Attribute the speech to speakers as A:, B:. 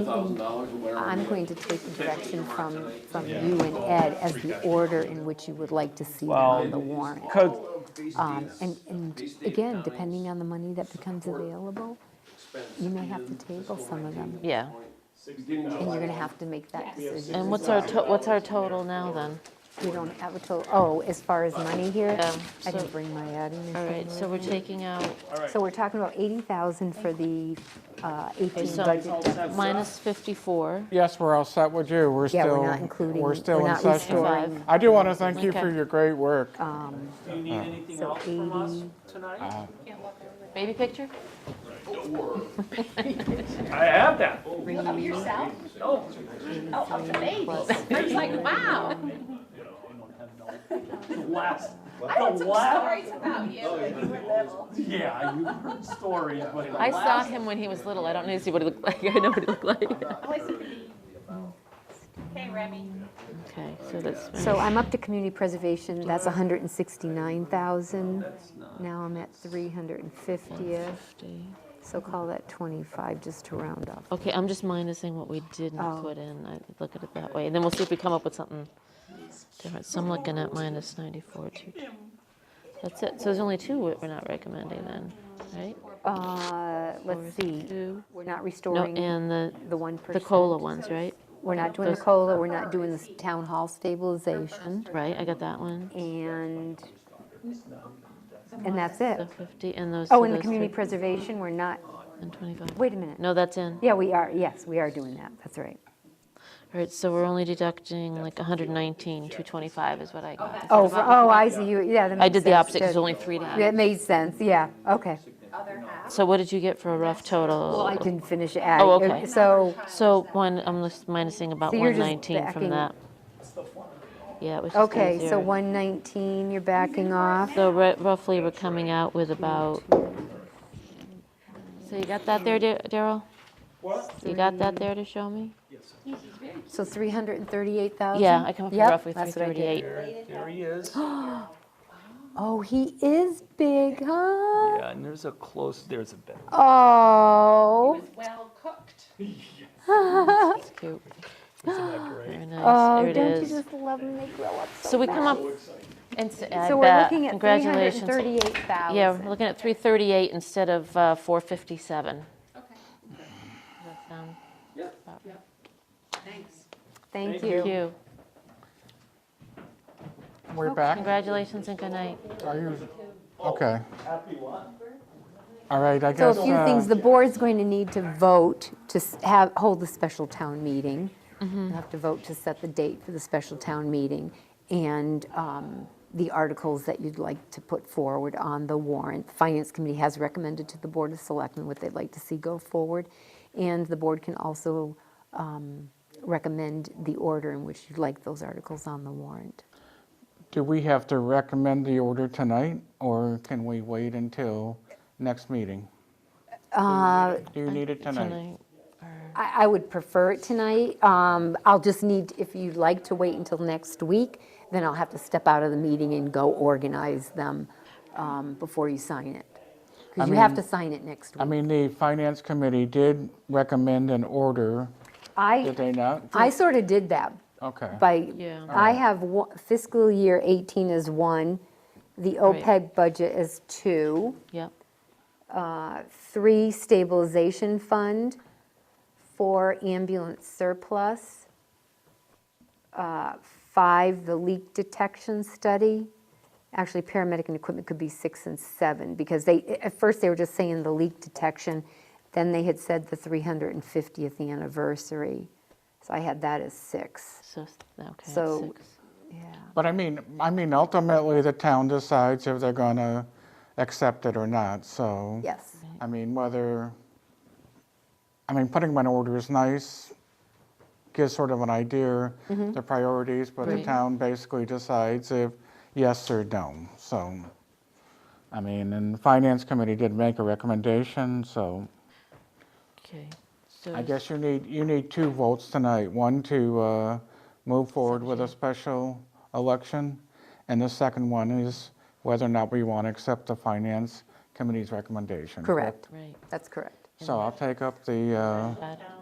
A: thousand dollars or whatever.
B: I'm going to take direction from, from you and Ed as the order in which you would like to see them on the warrant.
C: Code,
B: Um, And, and again, depending on the money that becomes available, you may have to table some of them,
D: Yeah.
B: and you're gonna have to make that decision.
D: And what's our, to- what's our total now then?
B: We don't have a total, oh, as far as money here,
D: Yeah,
B: I
D: so-
B: didn't bring my adding. and
D: All right,
B: taking
D: so
B: it.
D: we're taking out
B: So we're talking about 80,000 for the uh, 18
D: so-
B: budget deficit.
D: minus 54.
E: Yes, we're all set with you. We're
B: Yeah,
E: still,
B: we're not including,
E: we're
B: we're
E: still in
B: not
E: session.
B: restoring. um,
E: I do want to thank you
D: Okay.
E: for your great work.
B: Oh,
F: Do you need anything
B: So
F: else from us
B: 80.
F: tonight?
D: Baby picture?
F: I have that.
G: Of yourself?
F: No,
G: Oh, of the baby. It's like, wow.
F: the last,
G: I heard
F: the
G: some
F: last,
G: stories about you when you were little.
F: yeah, you heard stories, but the
D: I saw
F: last.
D: him when he was little. I don't know, see what he looked like. I know what he looked like.
G: Always a bee. Hey, Remy.
D: Okay, so that's,
B: So I'm up to community preservation, that's 169,000. Now I'm at 350th, so call that 25, just to round up.
D: okay, I'm just minusing what we didn't
B: Oh.
D: put in. I look at it that way. And then we'll see if we come up with something different. So I'm looking at minus 94, two- That's it. So there's only two we're not recommending then, right?
B: Uh, Let's see,
D: Two.
B: we're not
D: No,
B: restoring
D: and the,
B: the 1%.
D: the COLA ones, right?
B: We're not doing the COLA, we're not doing the town hall stabilization,
D: Right, I got that one.
B: and, and that's it.
D: 50 and those.
B: Oh,
D: so
B: and the
D: those
B: community
D: three-
B: preservation, we're not,
D: And 25.
B: wait a minute.
D: No, that's in.
B: Yeah, we are, yes, we are doing that, that's right.
D: All right, so we're only deducting like 119, 225 is what I got.
B: Oh, for- oh, I see, you, yeah, that makes sense.
D: I did the opposite, 'cause there's
B: good.
D: only three to add.
B: That made sense, yeah, okay.
G: Other half.
D: So what did you get for a rough
B: Well, I
D: total?
B: didn't finish adding.
D: Oh, okay.
B: So,
D: So one, I'm just minusing about
B: So you're just
D: 119
B: backing-
D: from that. Yeah, it was just
B: okay, so
D: easier.
B: 119, you're backing off.
D: So ru- roughly, we're coming out with about, so you got that there, Dar- Daryl?
F: What?
D: You got that there to show me?
B: So 338,000?
D: Yeah, I come up with
B: Yep,
D: roughly
B: that's what I did.
D: 338.
F: There he is.
B: Oh, he is big, huh?
F: Yeah, and there's a close, there's a better.
B: Oh,
G: It's well cooked.
D: It's cute. Very nice.
B: oh,
D: There it
B: Uh-huh. don't you
D: is.
B: just love when they grow up so
D: So we come
B: fast?
D: up, and s- I
B: So we're
D: bet.
B: looking at
D: congratulations.
B: 338,000.
D: Yeah, we're looking at 338 instead of uh, 457. Does
G: Okay.
D: that sound-
G: Thanks.
B: Thank
D: Thank
B: you.
D: you.
E: We're back.
D: Congratulations and good night.
E: Are you, okay. All right, I
B: So
E: guess.
B: a few
E: uh,
B: things, the board's going to need to vote to s- have, hold the special town meeting. You'll have to vote to set the date for the special town meeting and um, the articles that you'd like to put forward on the warrant. The Finance Committee has recommended to the Board of Selectmen what they'd like to see go forward. And the board can also um, recommend the order in which you'd like those articles on the warrant.
E: Do we have to recommend the order tonight, or can we wait until next meeting?
B: Uh,
E: Do you need it tonight?
D: Tonight.
B: I, I would prefer it tonight. Um, I'll just need, if you'd like to wait until next week, then I'll have to step out of the meeting and go organize them um, before you sign it. Because you have to sign it next
E: I
B: week.
E: mean, the finance committee did recommend an order, did
B: I,
E: they not?
B: I sort of did that
E: Okay.
B: by,
D: Yeah.
B: I have one- fiscal year 18 as one, the
D: Right.
B: OPEB budget as two,
D: Yep.
B: three stabilization fund, four ambulance surplus, uh, five the leak detection study. Actually, paramedic and equipment could be six and seven, because they, at first, they were just saying the leak detection, then they had said the 350th anniversary, so I had that as six,
D: So, s- okay,
B: So-
D: six.
B: yeah.
E: But I mean, I mean, ultimately, the town decides if they're going to accept it or not, so.
B: Yes,
E: I mean, whether, I mean, putting them in order is nice, gives sort of an idea, the priorities, but the
D: Right.
E: town basically decides if yes or no, so. I mean, and the finance committee did make a recommendation, so
D: Okay. So
E: I
D: is-
E: guess you need, you need two votes tonight. One to uh, move forward with a special election, and the second one is whether or not we want to accept the finance committee's recommendation.
B: correct,
D: Right.
B: that's correct.
E: So I'll take up the, uh,
D: Add-